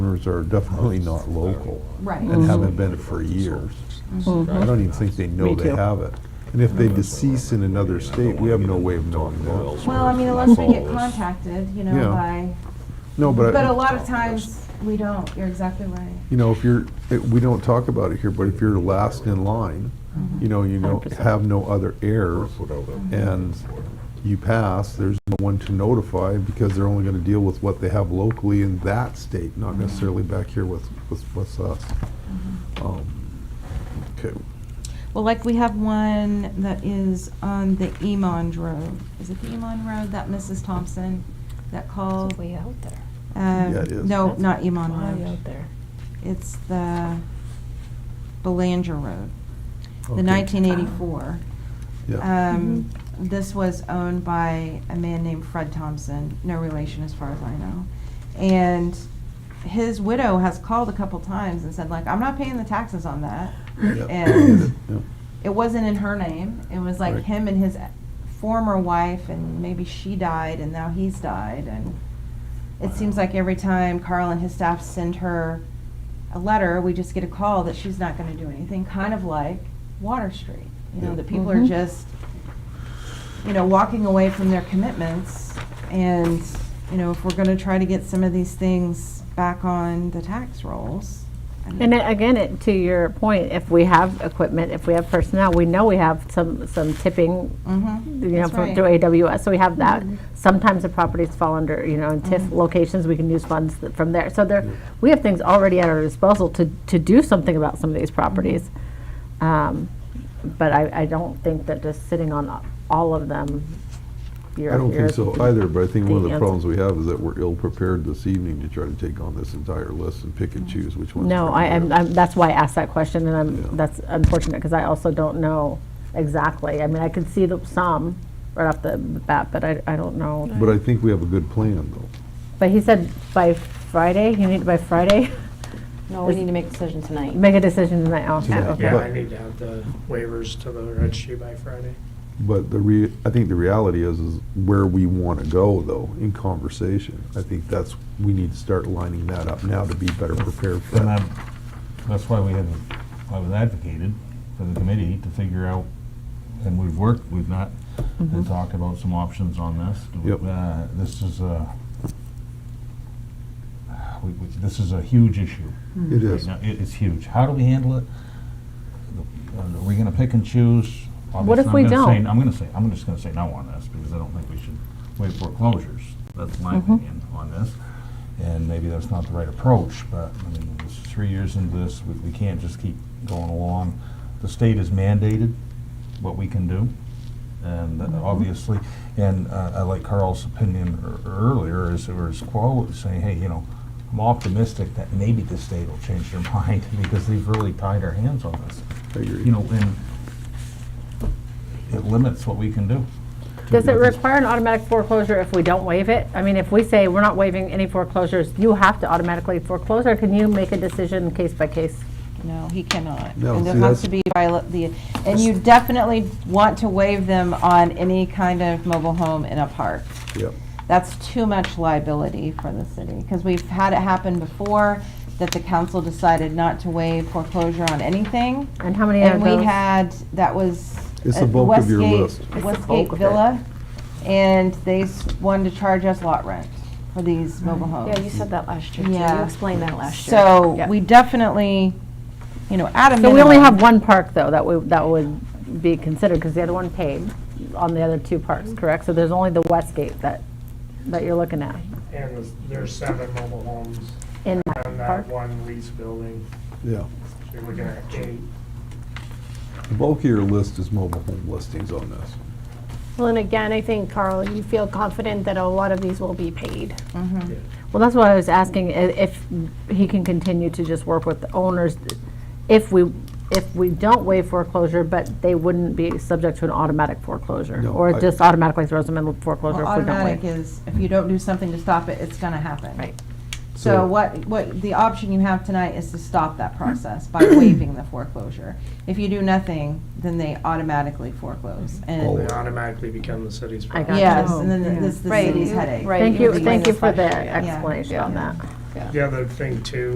numbers are definitely not local Right. and haven't been for years. Mm-hmm. I don't even think they know Me they too. have it. And if they decease in another state, we have no way of knowing that. Well, I mean, unless we get contacted, you Yeah. know, by, No, but. but I- a lot of times, we don't, you're exactly right. you know, if you're, it- we don't talk about it here, but if you're last in line, you know, you don't 100%. have no other heirs, and you pass, there's no one to notify, because they're only gonna deal with what they have locally in that state, not necessarily back here with, with, with us. Um, Okay, Well, like, we have one that is on the Emon Road. Is it the Emon Road, that Mrs. Thompson, that calls? Way out there. Um, Yeah, it is. No, Oh. not Emon Way out Road. there. It's the Belanger Road, Okay. the 1984. yeah, Um, This was owned by a man named Fred Thompson, no relation as far as I know. And his widow has called a couple times and said like, I'm not paying the taxes on that. Yeah. And yeah, it wasn't in her name. It was like Right. him and his former wife and maybe she died and now he's died and it seems like every time Carl and his staff send her a letter, we just get a call that she's not gonna do anything, kind of like Water Street. You know, Yeah. that people are Mhm. just, you know, walking away from their commitments and, you know, if we're gonna try to get some of these things back on the tax rolls. I mean- And it- again, it- to your point, if we have equipment, if we have personnel, we know we have some, some tipping, Mhm. you know, That's from, right. Mm-hmm. through AWS, so we have that. Sometimes the properties fall under, you know, in TIF locations, we can use funds th- from there. So there, we have things already at our disposal to, to do something about some of these properties. Um, But I, I don't think that just sitting on a- all of them, you're. I don't you're- think so either, but I think one of the Yes. problems we have is that we're ill-prepared this evening to try to take on this entire list and pick and choose which ones. No, we're gonna I, do. I'm, I'm- that's why I asked that question, and Yeah. I'm, that's unfortunate, because I also don't know exactly. I mean, I can see the, some right off the bat, but I, I don't know. But I think we have a good plan, though. But he said by Friday, you need, by Friday, No, we need to make a decision tonight. make a decision tonight. Oh, Tonight, okay. Yeah, But- I need to have the waivers to the registry by Friday. But the rea, I think the reality is, is where we want to go though, in conversation. I think that's, we need to start lining that up now to be better prepared for And that. I'm, that's why we had, I was advocated for the committee to figure out, and we've worked, we've not, Mm-hmm. and talked about some options on this. Yep. Uh, This is a, we, we, this is a huge issue. It is. Right now. It, it's huge. How do we handle it? The- Are we gonna pick and choose? What if Obviously, we I'm gonna say- don't? I'm gonna say, I'm just gonna say no on this, because I don't think we should wait for closures. That's my opinion on this. And maybe that's not the right approach, but, I mean, it's three years into this, we, we can't just keep going along. The state has mandated what we can do, and uh, obviously, and uh, I like Carl's opinion ear- earlier, is, or his quote, saying, hey, you know, I'm optimistic that maybe the state will change their mind, because they've really tied our hands on this. I agree. You know, and it limits what we can do. Does it require an automatic foreclosure if we don't waive it? I mean, if we say we're not waiving any foreclosures, you have to automatically foreclose, or can you make a decision case by case? No, he cannot. No, And there see, that's- has to be, viola- the and you definitely want to waive them on any kind of mobile home in a park. Yep. That's too much liability for the city, because we've had it happen before, that the council decided not to waive foreclosure on anything. And how many of And those? we had, that was. It's at the bulk of your Westgate- list. It's the Westgate bulk of it. Villa, and they s- wanted to charge us lot rent for these Mm-hmm. mobile homes. Yeah, you said that last year, too. You Yeah. explained that last year. So Yep. we definitely, you know, at a So we only minimum- have one park, though, that would, that would be considered, because the other one paid on the other two parks, correct? So there's only the Westgate that, that you're looking at And there's seven mobile homes in that on park? that one lease building, Yeah. so you're looking at eight. The bulk of your list is mobile home listings on this. Well, and again, I think, Carl, you feel confident that a lot of these will be paid. Mm-hmm. Well, that's why I was asking i- if he can continue to just work with the owners. If we, if we don't waive foreclosure, but they wouldn't be subject to an automatic foreclosure? No, Or I- just automatically throws them in foreclosure Well, if we don't automatic waive? is, if you don't do something to stop it, it's gonna happen. Right. So what, what, the option you have tonight is to stop that process by waiving the foreclosure. If you do nothing, then they automatically foreclose. Oh. And, They automatically become the city's I got property. you. yes, and then Yeah. this, is the Oh, Right, city's you- headache. right, Thank you, were thank you doing for this the last year, yeah. explanation on that. The other thing too